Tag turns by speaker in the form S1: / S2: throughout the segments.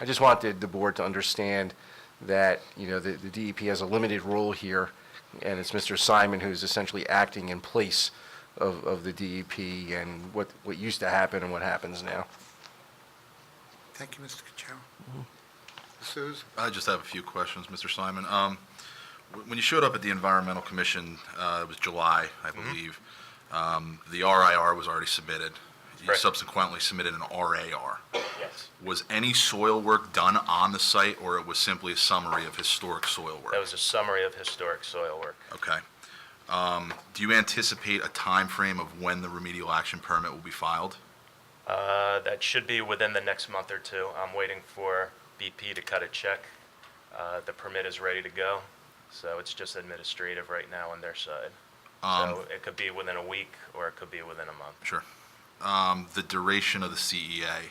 S1: I just wanted the board to understand that, you know, the, the DEP has a limited role here, and it's Mr. Simon who's essentially acting in place of, of the DEP and what, what used to happen and what happens now.
S2: Thank you, Mr. Cuccinero. D'Souza?
S3: I just have a few questions, Mr. Simon. Um, wh- When you showed up at the Environmental Commission, uh, it was July, I
S4: Mm-hmm.
S3: believe, um, the RIR was already submitted. You
S4: Correct.
S3: subsequently submitted an RAR.
S4: Yes,
S3: Was any soil work done on the site, or it was simply a summary of historic soil work?
S4: that was a summary of historic soil work.
S3: Okay. Um, Do you anticipate a time frame of when the remedial action permit will be filed?
S4: Uh, That should be within the next month or two. I'm waiting for BP to cut a check. Uh, The permit is ready to go, so it's just administrative right now on their side. So
S3: Um,
S4: it could be within a week, or it could be within a month.
S3: Sure. Um, The duration of the E CEA,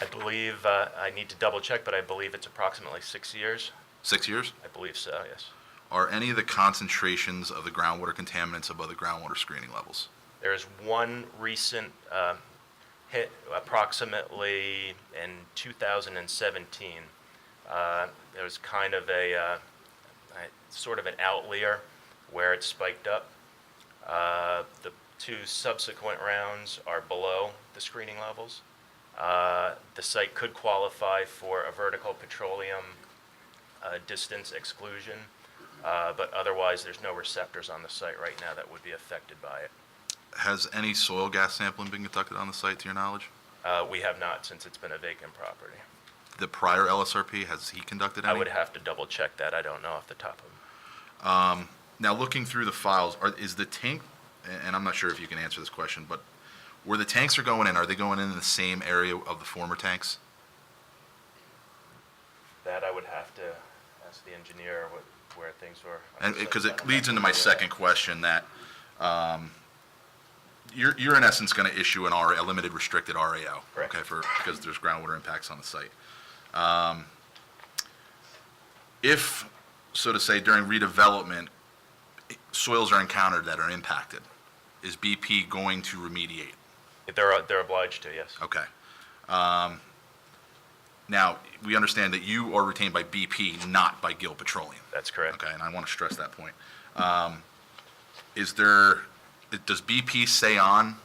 S4: I believe, uh, I need to double-check, but I believe it's approximately six years.
S3: six years?
S4: I believe so, yes.
S3: Are any of the concentrations of the groundwater contaminants above the groundwater screening levels?
S4: There is one recent uh, hit approximately in 2017. Uh, There was kind of a, uh, a- sort of an outlier where it spiked up. Uh, The two subsequent rounds are below the screening levels. Uh, The site could qualify for a vertical petroleum uh, distance exclusion, uh, but otherwise, there's no receptors on the site right now that would be affected by it.
S3: Has any soil gas sampling been conducted on the site, to your knowledge?
S4: Uh, We have not, since it's been a vacant property.
S3: The prior LSRP, has he conducted
S4: I
S3: any?
S4: would have to double-check that, I don't know off the top of,
S3: Now, looking through the files, are, is the tank, a- and I'm not sure if you can answer this question, but where the tanks are going in, are they going in the same area of the former tanks?
S4: that I would have to ask the engineer what- where things were.
S3: And, because it leads into my second question that, um, you're, you're in essence gonna issue an R, a limited restricted RAO.
S4: Correct.
S3: Okay, for, because there's groundwater impacts on the site. Um, If, so to say, during redevelopment, soils are encountered that are impacted, is BP going to remediate?
S4: They're, they're obliged to, yes.
S3: Okay. Um, Now, we understand that you are retained by BP, not by Gil Petroleum.
S4: That's correct.
S3: Okay, and I want to stress that point. Um, Is there, it- does BP stay on,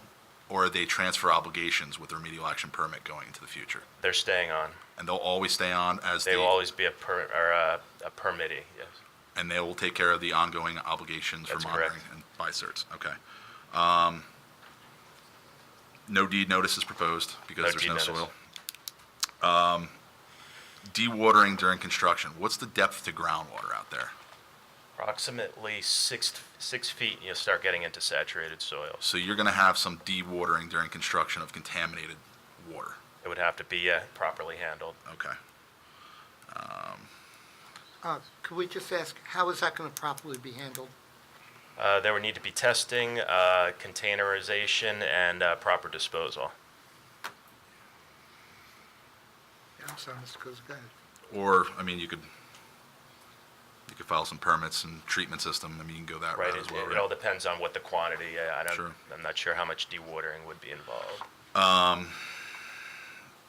S3: or are they transfer obligations with the remedial action permit going into the future?
S4: They're staying on.
S3: And they'll always stay on as
S4: They will
S3: the,
S4: always be a per, or a a permittee, yes.
S3: and they will take care of the ongoing obligations for
S4: That's correct.
S3: monitoring and by certs, okay. Um, No deed notice is proposed
S4: No
S3: because there's
S4: deed
S3: no
S4: notice.
S3: soil. Um, Dewatering during construction, what's the depth to groundwater out there?
S4: Approximately six, six feet, you'll start getting into saturated soils.
S3: So you're going to have some dewatering during construction of contaminated water.
S4: It would have to be uh, properly handled.
S3: Okay.
S2: Uh, Could we just ask, how is that going to properly be handled?
S4: Uh, There would need to be testing, uh, containerization, and uh, proper disposal.
S2: Yeah, I'm sorry, Mr. Kuzic, go ahead.
S3: Or, I mean, you could, you could file some permits and treatment system. I mean, you can go that
S4: Right,
S3: route
S4: it,
S3: as well,
S4: it all
S3: right?
S4: depends on what the quantity, uh, I don't,
S3: Sure.
S4: I'm not sure how much dewatering would be involved.
S3: I-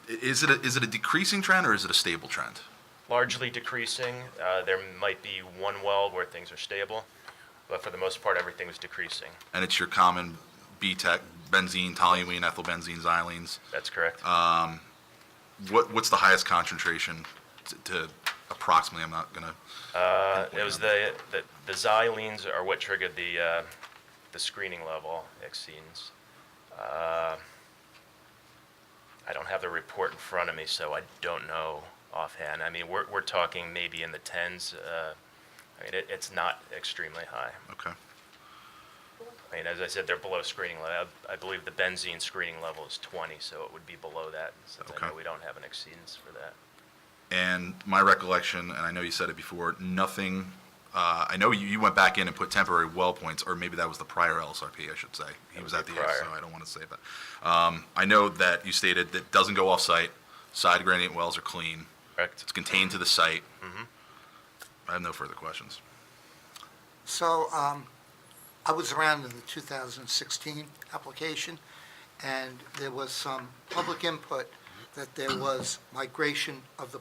S3: Is it, a- is it a decreasing trend or is it a stable trend?
S4: Largely decreasing, uh, there might be one well where things are stable, but for the most part, everything was decreasing.
S3: And it's your common BTEC, benzene, toluene, ethyl benzene, xylenes.
S4: That's correct.
S3: What, what's the highest concentration t- to approximately? I'm not going to,
S4: Uh,
S3: pinpoint
S4: it was
S3: number.
S4: the, the, the xylenes are what triggered the, uh, the screening level exceeds. Uh, I don't have the report in front of me, so I don't know offhand. I mean, we're, we're talking maybe in the tens, uh, I mean, it, it's not extremely high.
S3: okay.
S4: I mean, as I said, they're below screening level. I believe the benzene screening level is 20, so it would be below that, since I know
S3: Okay.
S4: we don't have an exceedance for that.
S3: And my recollection, and I know you said it before, nothing, uh, I know you, you went back in and put temporary well points, or maybe that was the prior LSRP, I should say. He
S4: That
S3: was
S4: was
S3: at the,
S4: the
S3: end, so
S4: prior.
S3: I don't want to say that. Um, I know that you stated that doesn't go off-site, side gradient wells are clean,
S4: Correct?
S3: it's contained to the site. I have no further questions.
S2: So um, I was around in the 2016 application, and there was some public input that there was migration of the